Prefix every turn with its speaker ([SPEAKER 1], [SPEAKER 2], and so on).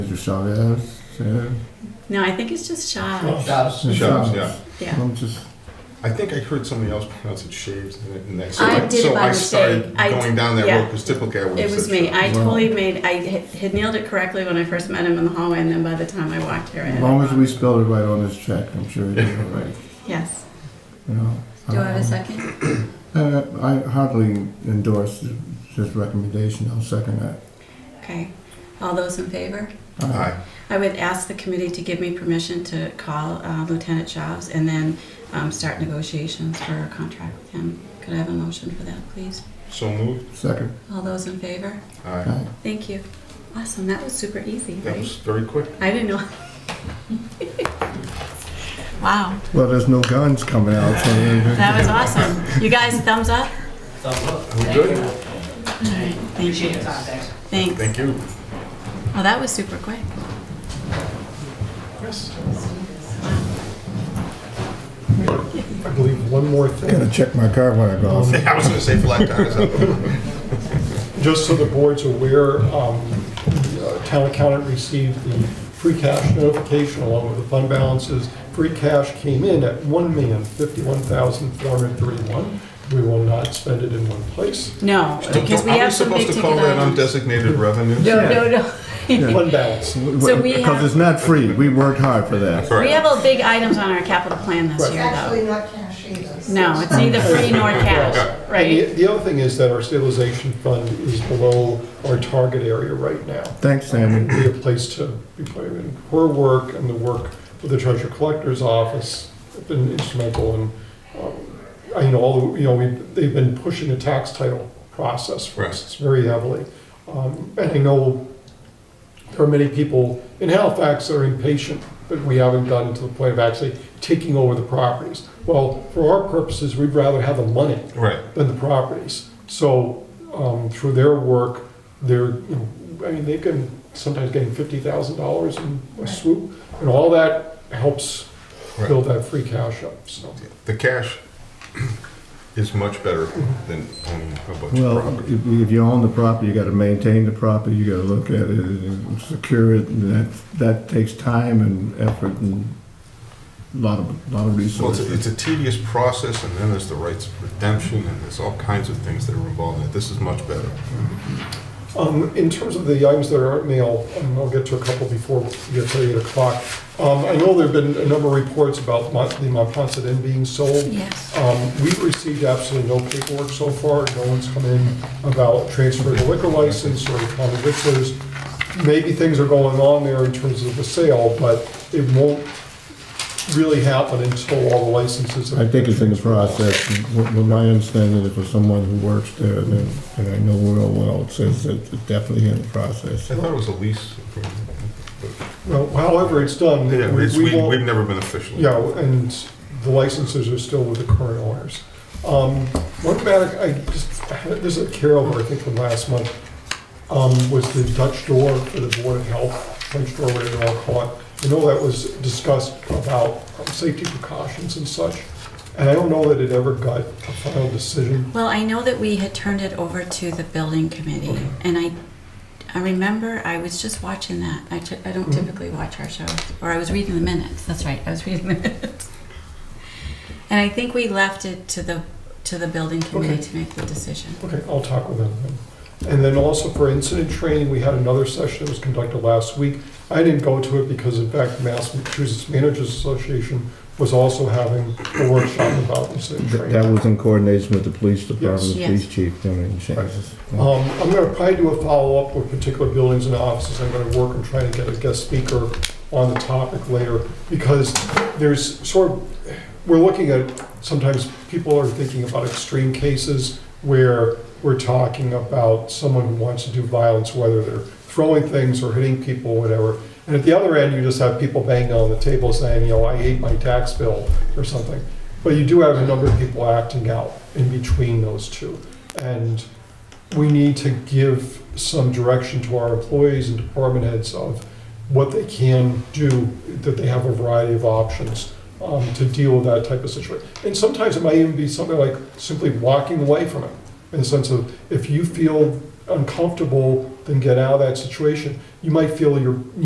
[SPEAKER 1] Mr. Chavez said.
[SPEAKER 2] No, I think it's just
[SPEAKER 1] Oh,
[SPEAKER 2] shy.
[SPEAKER 3] Shops.
[SPEAKER 4] Shops, yeah.
[SPEAKER 2] Yeah.
[SPEAKER 1] I'm just,
[SPEAKER 4] I think I heard somebody else pronounce it shaves in it- in that. So
[SPEAKER 2] I did it
[SPEAKER 4] so
[SPEAKER 2] by
[SPEAKER 4] I started
[SPEAKER 2] mistake. I
[SPEAKER 4] going
[SPEAKER 2] d-
[SPEAKER 4] down that
[SPEAKER 2] yeah.
[SPEAKER 4] road because typically I would
[SPEAKER 2] It
[SPEAKER 4] have
[SPEAKER 2] was
[SPEAKER 4] said
[SPEAKER 2] me.
[SPEAKER 4] shaves.
[SPEAKER 2] I
[SPEAKER 1] Wow.
[SPEAKER 2] totally made, I had had nailed it correctly when I first met him in the hallway, and then by the time I walked here, I had.
[SPEAKER 1] as
[SPEAKER 2] it
[SPEAKER 1] long as
[SPEAKER 2] wrong.
[SPEAKER 1] we spelled it right on this check, I'm sure it is all right.
[SPEAKER 2] Yes.
[SPEAKER 1] You know,
[SPEAKER 5] Do I have
[SPEAKER 1] um,
[SPEAKER 5] a second?
[SPEAKER 1] Uh, I hardly endorse th- this recommendation. I'll second that.
[SPEAKER 2] Okay. All those in favor?
[SPEAKER 4] Aye.
[SPEAKER 2] I would ask the committee to give me permission to call uh, Lieutenant Chaves and then um, start negotiations for a contract with him. Could I have a motion for that, please?
[SPEAKER 4] So moved.
[SPEAKER 1] Second.
[SPEAKER 2] All those in favor?
[SPEAKER 4] Aye.
[SPEAKER 1] Aye.
[SPEAKER 2] Thank you. Awesome. That was super easy,
[SPEAKER 4] That
[SPEAKER 2] right?
[SPEAKER 4] was very quick.
[SPEAKER 2] I didn't know. Wow,
[SPEAKER 1] Well, there's no guns coming out. So
[SPEAKER 2] that was awesome. You guys, thumbs up?
[SPEAKER 4] We good?
[SPEAKER 2] All right, thank you. Thanks.
[SPEAKER 4] Thank you.
[SPEAKER 2] Well, that was super quick.
[SPEAKER 4] Yes.
[SPEAKER 3] I believe one more
[SPEAKER 1] I gotta
[SPEAKER 3] thing,
[SPEAKER 1] check my car when I go. out.
[SPEAKER 4] I was gonna say flat tires.
[SPEAKER 3] just so the board's aware, um, the uh, town accountant received the free cash notification along with the fund balances. Free cash came in at one million fifty-one thousand four hundred thirty-one. We will not spend it in one place.
[SPEAKER 2] No, because we
[SPEAKER 4] Are
[SPEAKER 2] have some big
[SPEAKER 4] supposed to
[SPEAKER 2] ticket
[SPEAKER 4] call that
[SPEAKER 2] items.
[SPEAKER 4] undesignated revenue?
[SPEAKER 2] No, no, no.
[SPEAKER 3] Fund balance.
[SPEAKER 2] So we
[SPEAKER 1] Because
[SPEAKER 2] have-
[SPEAKER 1] it's not free. We worked hard for that.
[SPEAKER 2] We have a big items on our capital plan this
[SPEAKER 3] Right.
[SPEAKER 2] year,
[SPEAKER 6] Actually,
[SPEAKER 2] though.
[SPEAKER 6] not cash either.
[SPEAKER 2] No, it's neither free nor cash,
[SPEAKER 3] And the-
[SPEAKER 2] right?
[SPEAKER 3] the other thing is that our stabilization fund is below our target area right now.
[SPEAKER 1] Thanks,
[SPEAKER 3] would
[SPEAKER 1] Sammy.
[SPEAKER 3] be a place to be putting in her work and the work of the treasurer collector's office have been instrumental in, um, I know, all the- you know, we, they've been pushing the tax title process for us very heavily. Um, And I know there are many people in Halifax that are impatient, but we haven't gotten to the point of actually taking over the properties. Well, for our purposes, we'd rather have the money
[SPEAKER 4] Right.
[SPEAKER 3] than the properties. So um, through their work, they're, you know, I mean, they can sometimes getting fifty thousand dollars in a swoop, and all that helps
[SPEAKER 4] Right.
[SPEAKER 3] build that free cash up. So
[SPEAKER 4] The cash is much better than owning a bunch of
[SPEAKER 1] Well,
[SPEAKER 4] property.
[SPEAKER 1] if if you own the property, you gotta maintain the property, you gotta look at it and secure it. and That, that takes time and effort and a lot of, lot of
[SPEAKER 4] Well, it's a,
[SPEAKER 1] resources.
[SPEAKER 4] it's a tedious process, and then there's the rights of redemption, and there's all kinds of things that are involved in it. This is much better.
[SPEAKER 3] um, in terms of the items that are mail, um, I'll get to a couple before we get to eight o'clock. Um, I know there've been a number of reports about Mont- the Montponset Inn being sold.
[SPEAKER 2] Yes.
[SPEAKER 3] Um, We've received absolutely no paperwork so far, no one's come in about transferring a liquor license or common victors. Maybe things are going on there in terms of the sale, but it won't really happen until all the licenses.
[SPEAKER 1] I think it's in the process. From from my understanding, if for someone who works there, then, and I know real well, it says that it's definitely in the process.
[SPEAKER 4] I thought it was a lease. agreement,
[SPEAKER 3] Well, However it's done,
[SPEAKER 4] but-
[SPEAKER 3] we
[SPEAKER 4] Yeah, it's- we,
[SPEAKER 3] we won't.
[SPEAKER 4] we've never been officially.
[SPEAKER 3] Yeah, and the licenses are still with the current owners. Um, One matter, I just, there's a carryover, I think, from last month, um, was the Dutch door for the Board of Health, French door, whatever you want to call it. I know that was discussed about um, safety precautions and such, and I don't know that it ever got a final decision.
[SPEAKER 2] Well, I know that we had turned it over to the building committee, and I, I remember I was just watching that. I, ty- I don't
[SPEAKER 3] Mhm.
[SPEAKER 2] typically watch our shows, or I was reading the minutes. That's right, I was reading the minutes. And I think we left it to the to the building committee
[SPEAKER 3] Okay.
[SPEAKER 2] to make the decision.
[SPEAKER 3] Okay, I'll talk with them. then. And then also for incident training, we had another session that was conducted last week. I didn't go to it because in fact Massachusetts Managers Association was also having a workshop about incident
[SPEAKER 1] Th- That
[SPEAKER 3] training.
[SPEAKER 1] was in coordination with the police department,
[SPEAKER 2] Yes.
[SPEAKER 1] police chief, doing in changes.
[SPEAKER 3] Um, I'm gonna probably do a follow-up with particular buildings and offices. I'm gonna work and try to get a guest speaker on the topic later because there's sort of, we're looking at, sometimes people are thinking about extreme cases where we're talking about someone who wants to do violence, whether they're throwing things or hitting people, whatever. And at the other end, you just have people banging on the table saying, you know, I ate my tax bill or something. But you do have a number of people acting out in between those two. And we need to give some direction to our employees and department heads of what they can do, that they have a variety of options um, to deal with that type of situation. And sometimes it might even be something like simply walking away from it, in the sense of, if you feel uncomfortable, then get out of that situation. You might feel you're,